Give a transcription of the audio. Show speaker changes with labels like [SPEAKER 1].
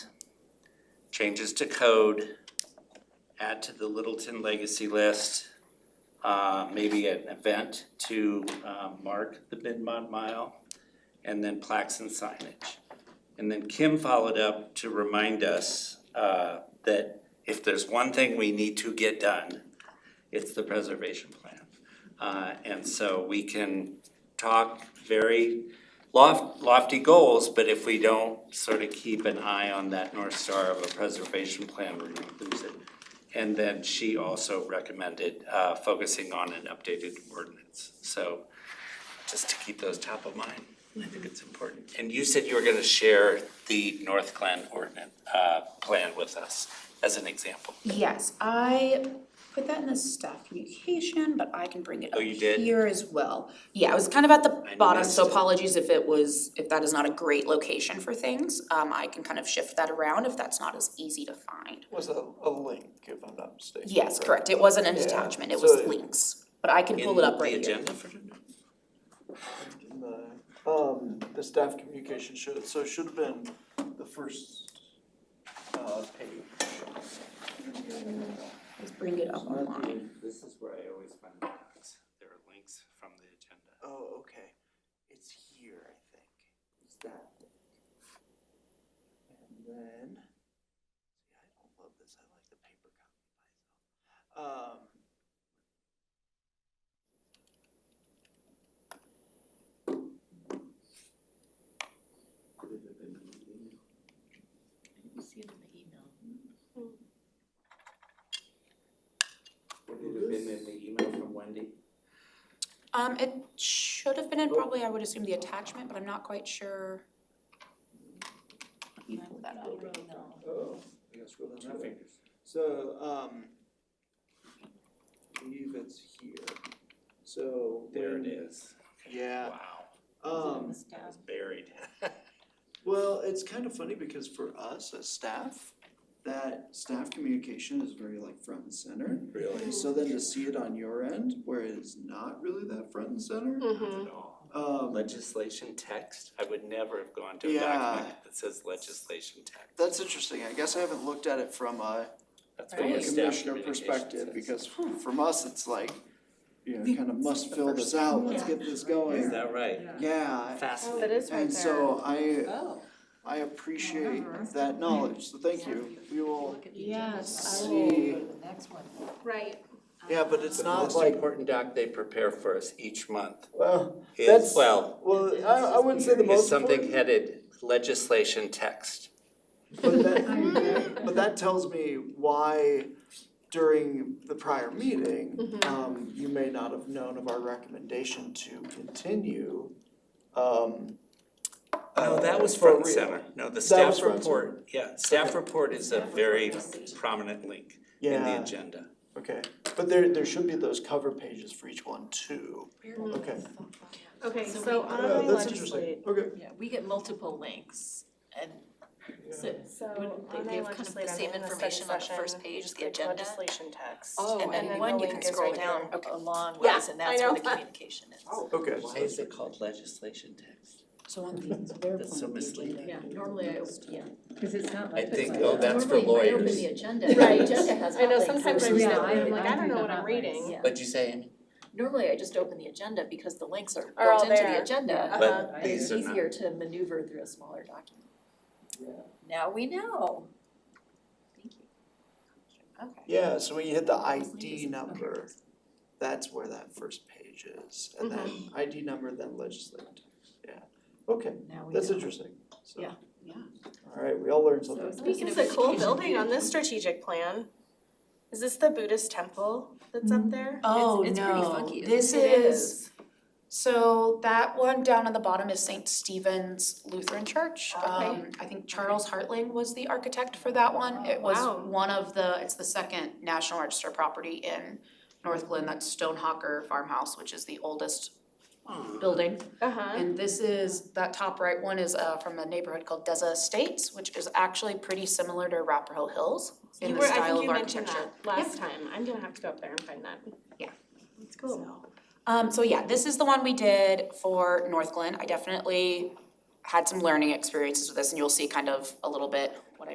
[SPEAKER 1] changes to code, add to the Littleton legacy list, uh, maybe an event to, uh, mark the Mid-Mod Mile, and then plaques and signage. And then Kim followed up to remind us, uh, that if there's one thing we need to get done, it's the preservation plan. Uh, and so we can talk very loft, lofty goals, but if we don't sort of keep an eye on that north star of a preservation plan, we're gonna lose it. And then she also recommended, uh, focusing on an updated ordinance, so just to keep those top of mind, I think it's important. And you said you were gonna share the North Glen ordinance, uh, plan with us as an example.
[SPEAKER 2] Yes, I put that in the staff communication, but I can bring it
[SPEAKER 1] Oh,
[SPEAKER 2] up
[SPEAKER 1] you did?
[SPEAKER 2] here as well. Yeah, I was kind of at the
[SPEAKER 1] I
[SPEAKER 2] bottom,
[SPEAKER 1] missed
[SPEAKER 2] so
[SPEAKER 1] it.
[SPEAKER 2] apologies if it was, if that is not a great location for things. Um, I can kind of shift that around if that's not as easy to find.
[SPEAKER 3] Was a, a link, if I'm not mistaken.
[SPEAKER 2] Yes, correct, it wasn't an
[SPEAKER 3] Yeah,
[SPEAKER 2] attachment, it was
[SPEAKER 3] so it-
[SPEAKER 2] links, but I can pull it up right here.
[SPEAKER 1] In the agenda for tonight?
[SPEAKER 3] In the, Um, the staff communication should, so it should have been the first, uh, page.
[SPEAKER 2] Let's bring it up online.
[SPEAKER 1] This is where I always find the docs. There are links from the agenda.
[SPEAKER 3] Oh, okay, it's here, I think, it's that. And then, yeah, I don't love this, I like the paper copy myself. Um.
[SPEAKER 4] You see it in the email.
[SPEAKER 1] Would it have been in the email from Wendy?
[SPEAKER 2] Um, it should have been
[SPEAKER 3] Oh.
[SPEAKER 2] in probably, I would assume, the attachment, but I'm not quite sure. Let me pull that up.
[SPEAKER 4] No.
[SPEAKER 3] Oh, I gotta scroll down that way. So, um, I believe it's here, so.
[SPEAKER 1] There it
[SPEAKER 3] when-
[SPEAKER 1] is.
[SPEAKER 3] Yeah,
[SPEAKER 1] Wow,
[SPEAKER 3] um,
[SPEAKER 4] It's in the
[SPEAKER 1] that was
[SPEAKER 4] staff.
[SPEAKER 1] buried.
[SPEAKER 3] well, it's kind of funny because for us as staff, that staff communication is very like front and center.
[SPEAKER 1] Really?
[SPEAKER 3] So then to see it on your end, where it's not really that front and center,
[SPEAKER 5] Mm-hmm.
[SPEAKER 1] Not at all.
[SPEAKER 3] um,
[SPEAKER 1] Legislation text? I would never have gone to a
[SPEAKER 3] Yeah.
[SPEAKER 1] document that says legislation text.
[SPEAKER 3] that's interesting, I guess I haven't looked at it from a,
[SPEAKER 1] That's
[SPEAKER 3] from
[SPEAKER 1] what
[SPEAKER 3] a
[SPEAKER 1] the staff
[SPEAKER 3] commissioner
[SPEAKER 1] communication
[SPEAKER 3] perspective,
[SPEAKER 1] says.
[SPEAKER 3] because from us, it's like, you know, kind of must fill this out, let's get this
[SPEAKER 1] Is
[SPEAKER 3] going.
[SPEAKER 1] that right?
[SPEAKER 3] Yeah,
[SPEAKER 1] Fascinating.
[SPEAKER 5] Oh, That is right there. Uh-huh.
[SPEAKER 3] And so I,
[SPEAKER 4] Oh.
[SPEAKER 3] I appreciate that knowledge, so thank you. We will,
[SPEAKER 4] Look at the agenda.
[SPEAKER 5] Yes,
[SPEAKER 3] I will See.
[SPEAKER 4] Go to the next one.
[SPEAKER 5] Right.
[SPEAKER 3] yeah, but it's not
[SPEAKER 1] Most
[SPEAKER 3] like,
[SPEAKER 1] important doc they prepare for us each month
[SPEAKER 3] well,
[SPEAKER 1] is,
[SPEAKER 3] That's-
[SPEAKER 1] well,
[SPEAKER 3] well, I, I wouldn't say the
[SPEAKER 1] is
[SPEAKER 3] most
[SPEAKER 1] something
[SPEAKER 3] important,
[SPEAKER 1] headed legislation text.
[SPEAKER 3] but that, but that tells me why during the prior meeting,
[SPEAKER 1] Mm-hmm.
[SPEAKER 3] um, you may not have known of our recommendation to continue, um.
[SPEAKER 1] No,
[SPEAKER 3] uh,
[SPEAKER 1] that was
[SPEAKER 3] for
[SPEAKER 1] front and
[SPEAKER 3] real.
[SPEAKER 1] center, no, the
[SPEAKER 3] That was
[SPEAKER 1] staff
[SPEAKER 3] front and center.
[SPEAKER 1] report, yeah, staff report is a very prominent link in the
[SPEAKER 3] Yeah,
[SPEAKER 1] agenda.
[SPEAKER 3] okay, but there, there should be those cover pages for each one too.
[SPEAKER 1] Mm-hmm.
[SPEAKER 3] Okay.
[SPEAKER 5] Okay,
[SPEAKER 4] So
[SPEAKER 5] so
[SPEAKER 4] we-
[SPEAKER 5] on
[SPEAKER 3] Yeah, that's
[SPEAKER 5] legislate.
[SPEAKER 3] interesting, okay.
[SPEAKER 4] Yeah, we get multiple links and so
[SPEAKER 5] So
[SPEAKER 4] wouldn't they, they have kind of the same information on the first page, the agenda?
[SPEAKER 6] legislation text.
[SPEAKER 4] Oh,
[SPEAKER 5] Oh,
[SPEAKER 4] And then one, you can scroll down a long
[SPEAKER 5] Yeah,
[SPEAKER 4] ways and that's
[SPEAKER 5] I
[SPEAKER 4] where the
[SPEAKER 5] know.
[SPEAKER 4] communication is.
[SPEAKER 3] Okay.
[SPEAKER 1] Oh, Why is it called legislation text?
[SPEAKER 7] So on the, their
[SPEAKER 1] That's so
[SPEAKER 7] point of the
[SPEAKER 1] misleading.
[SPEAKER 7] agenda.
[SPEAKER 4] Yeah, normally I, yeah.
[SPEAKER 7] Cause it's not
[SPEAKER 1] I
[SPEAKER 7] like.
[SPEAKER 1] think, oh, that's for
[SPEAKER 4] Normally if I open
[SPEAKER 1] lawyers.
[SPEAKER 4] the agenda,
[SPEAKER 5] Right.
[SPEAKER 4] the agenda has
[SPEAKER 5] I know,
[SPEAKER 4] hotlinks.
[SPEAKER 5] sometimes
[SPEAKER 7] I
[SPEAKER 5] I'm
[SPEAKER 7] Yeah,
[SPEAKER 5] still,
[SPEAKER 7] I-
[SPEAKER 5] like,
[SPEAKER 7] I
[SPEAKER 5] I don't know
[SPEAKER 7] do
[SPEAKER 5] what
[SPEAKER 7] the
[SPEAKER 5] I'm
[SPEAKER 7] hotlinks.
[SPEAKER 5] reading.
[SPEAKER 4] Yeah.
[SPEAKER 1] What'd you say, Amy?
[SPEAKER 4] Normally I just open the agenda because the links are
[SPEAKER 5] Are all
[SPEAKER 4] built into
[SPEAKER 5] there.
[SPEAKER 4] the agenda.
[SPEAKER 5] But Uh-huh.
[SPEAKER 4] and It's
[SPEAKER 1] these are not.
[SPEAKER 4] easier to maneuver through a smaller document. Now we know. Thank you. Okay.
[SPEAKER 3] Yeah, so when you hit the ID number, that's where that first page is, and then
[SPEAKER 4] Mm-hmm.
[SPEAKER 3] ID number, then legislative text, yeah, okay,
[SPEAKER 4] Now we
[SPEAKER 3] that's
[SPEAKER 4] know.
[SPEAKER 3] interesting, so.
[SPEAKER 4] Yeah,
[SPEAKER 7] yeah.
[SPEAKER 3] Alright, we all learned something.
[SPEAKER 5] This
[SPEAKER 4] Speaking
[SPEAKER 5] is
[SPEAKER 4] of
[SPEAKER 5] a cool
[SPEAKER 4] education-
[SPEAKER 5] building on this strategic plan. Is this the Buddhist temple that's up there?
[SPEAKER 2] Oh,
[SPEAKER 4] it's pretty
[SPEAKER 2] no,
[SPEAKER 4] funky, isn't
[SPEAKER 2] this
[SPEAKER 4] it? It is.
[SPEAKER 2] is, so that one down on the bottom is Saint Stephen's Lutheran Church.
[SPEAKER 5] Okay.
[SPEAKER 2] Um, I think Charles Hartling was the architect for that one. It was
[SPEAKER 5] Wow.
[SPEAKER 2] one of the, it's the second National Register property in North Glen, that's Stonehawker Farmhouse, which is the oldest building.
[SPEAKER 5] Uh-huh.
[SPEAKER 2] And this is, that top right one is uh from a neighborhood called Deza Estates, which is actually pretty similar to Arapahoe Hills in
[SPEAKER 5] You
[SPEAKER 2] the
[SPEAKER 5] were, I
[SPEAKER 2] style
[SPEAKER 5] think
[SPEAKER 2] of
[SPEAKER 5] you mentioned
[SPEAKER 2] architecture.
[SPEAKER 5] that last time. I'm gonna have to go up there and find that.
[SPEAKER 2] Yeah.
[SPEAKER 5] It's cool.
[SPEAKER 2] Um, so yeah, this is the one we did for North Glen. I definitely had some learning experiences with this and you'll see kind of a little bit what I